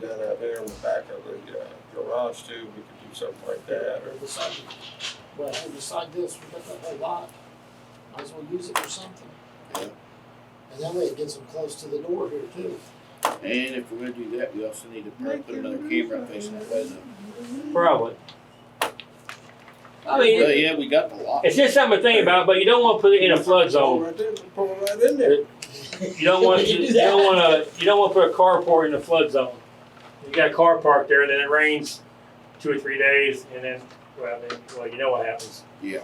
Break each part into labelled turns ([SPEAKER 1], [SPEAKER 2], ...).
[SPEAKER 1] done out there in the back of the uh, garage too, we could do something like that, or,
[SPEAKER 2] Or beside, well, hey, beside this, we got that whole lot, might as well use it for something.
[SPEAKER 3] Yeah.
[SPEAKER 2] And that way it gets them close to the door here too.
[SPEAKER 3] And if we're gonna do that, we also need to probably put another camera facing that way though.
[SPEAKER 4] Probably. I mean,
[SPEAKER 3] Well, yeah, we got the lot.
[SPEAKER 4] it's just something to think about, but you don't want to put it in a flood
[SPEAKER 1] pull
[SPEAKER 4] zone.
[SPEAKER 1] right there, just pull right in there.
[SPEAKER 4] You don't want to, you don't want to, you don't want to put a carport in a flood zone. You got a car parked there, then it rains two or three days, and then, well, then, well, you know what happens.
[SPEAKER 3] Yeah.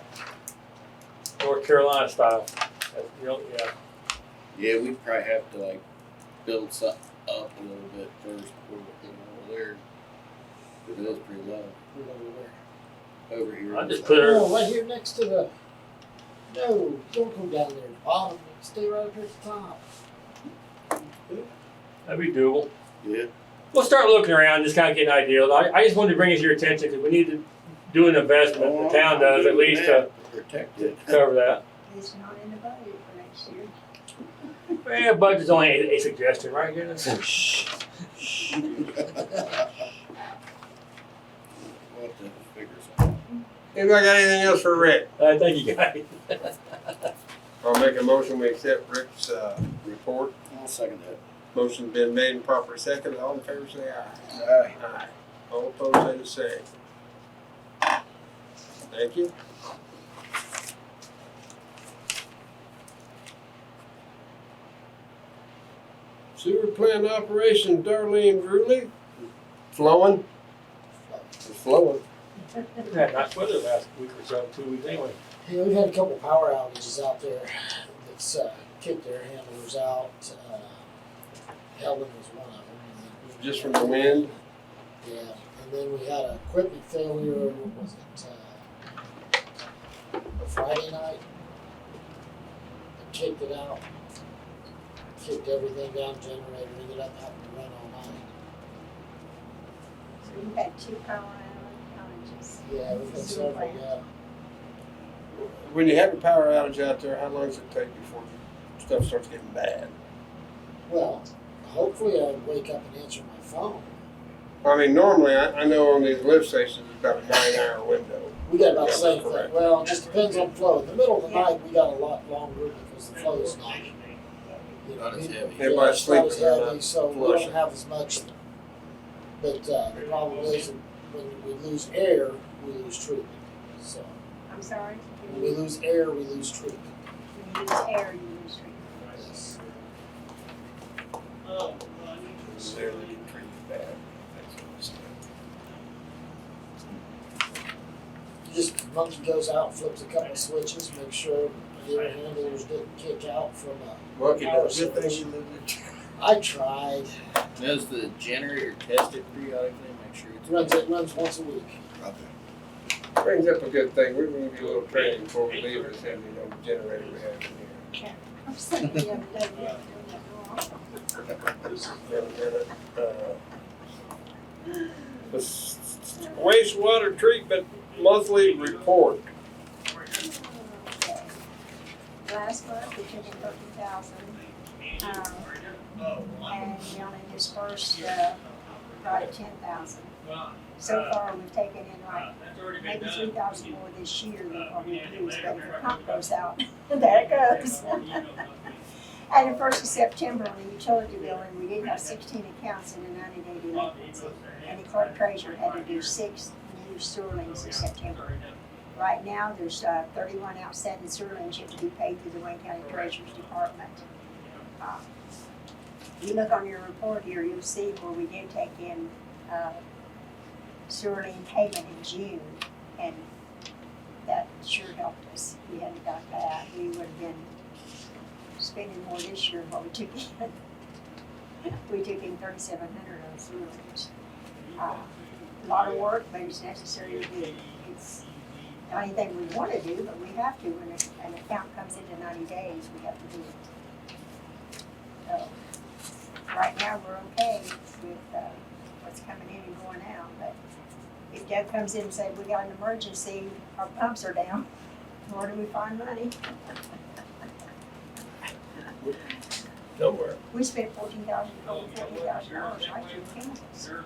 [SPEAKER 4] North Carolina style. That's- You know, yeah.
[SPEAKER 3] Yeah, we probably have to like build something up a little bit first before we put it over there. But it was pretty low
[SPEAKER 2] We're gonna wear-
[SPEAKER 3] over here.
[SPEAKER 4] I just put her.
[SPEAKER 2] Oh, right here next to the, no, don't go down there, to the bottom, stay right up here at the top.
[SPEAKER 4] That'd be doable.
[SPEAKER 3] Yeah,
[SPEAKER 4] We'll start looking around, just kind of get an idea. I, I just wanted to bring it to your attention because we need to do an investment. The town does at least to
[SPEAKER 3] Protect it.
[SPEAKER 4] cover that.
[SPEAKER 5] It's not in the budget for next year.
[SPEAKER 4] Yeah, budget's only a, a suggestion, right, Dennis?
[SPEAKER 3] We'll have to figure something.
[SPEAKER 1] Anybody got anything else for Rick?
[SPEAKER 4] I think Uh, you guys.
[SPEAKER 1] I'll make a motion, we accept Rick's, uh, report.
[SPEAKER 3] I'll second that.
[SPEAKER 1] Motion's been made and properly seconded, all in favor say aye. Aye. All opposed say the same. Thank you. Sewer plant operation, Darlene Drewley, flowing, it's flowing.
[SPEAKER 4] We've had nice weather last week or so, two weeks anyway.
[SPEAKER 2] Yeah, we've had a couple power outages out there that's uh, kicked their handlers out. Uh, Helen was one of them.
[SPEAKER 1] Just from the wind?
[SPEAKER 2] Yeah, and then we had a equipment failure. What was it? Uh, a Friday night. They kicked it out. Kicked everything down, generator, ended up having to run all night.
[SPEAKER 5] So you've got two power outages.
[SPEAKER 2] Yeah, we've had several. Yeah.
[SPEAKER 1] When you have a power outage out there, how long does it take before stuff starts getting bad?
[SPEAKER 2] Well, hopefully I would wake up and answer my phone.
[SPEAKER 1] I mean, normally, I, I know on these lift stations, it's about a nine hour window.
[SPEAKER 2] We got about the same
[SPEAKER 1] Correct.
[SPEAKER 2] thing. Well, it just depends on flow. In the middle of the night, we got a lot longer because the flow is Oh, not. you know,
[SPEAKER 3] Not as heavy.
[SPEAKER 1] Everybody's
[SPEAKER 2] yeah, it's not as
[SPEAKER 1] sleeping, they're
[SPEAKER 2] heavy,
[SPEAKER 1] not
[SPEAKER 2] So we
[SPEAKER 1] flushing.
[SPEAKER 2] don't have as much. But, uh, the problem is that when we lose air, we lose treatment. So
[SPEAKER 5] I'm sorry,
[SPEAKER 2] when
[SPEAKER 5] you
[SPEAKER 2] we
[SPEAKER 5] use,
[SPEAKER 2] lose air, we lose treatment.
[SPEAKER 5] you use air, you use treatment.
[SPEAKER 2] Yes.
[SPEAKER 1] necessarily get treated bad.
[SPEAKER 2] Just monkey goes out, flips a couple switches, make sure the air handlers didn't kick out from a.
[SPEAKER 1] Monkey
[SPEAKER 2] power
[SPEAKER 1] does good
[SPEAKER 2] source.
[SPEAKER 1] thing you live
[SPEAKER 2] I tried.
[SPEAKER 3] Does the generator test it periodically, make sure it's.
[SPEAKER 2] Runs, it runs once a week.
[SPEAKER 1] there. Brings up a good thing, we're gonna do a little training before we leave, or something, you know, the generator we have in
[SPEAKER 5] I'm saying the other day, you were doing that wrong.
[SPEAKER 1] here. And then, uh, the s- Wastewater treatment monthly report.
[SPEAKER 5] Okay. Last month, we took in thirty thousand, um, and we only dispersed, uh, right ten thousand. So far, we've taken in like maybe three thousand more this year than what we used, but if the pump goes out, there it goes. And the first of September, on the utility billing, we did have sixteen accounts in the ninety-day delinquency. And the clerk treasurer had to do six new sterlings in September. Right now, there's uh, thirty-one outstanding sterlings yet to be paid through the Wayne County Treasurer's Department. Uh, You look on your report here, you'll see where we did take in uh, sterling payment in June, and that sure helped us. We hadn't got that, we would have been spending more this year than what we took in. We took in thirty-seven hundred on sterlings. Uh, A Lot of work, but it's necessary to do. It's not anything we want to do, but we have to. When a- an account comes into ninety days, we have to do it. So, right now, we're okay with uh, what's coming in and going out, but if Deb comes in and says, we got an emergency, our pumps are down, where do we find money?
[SPEAKER 1] somewhere.
[SPEAKER 5] We spent fourteen thousand, over fourteen thousand dollars right through the chemicals.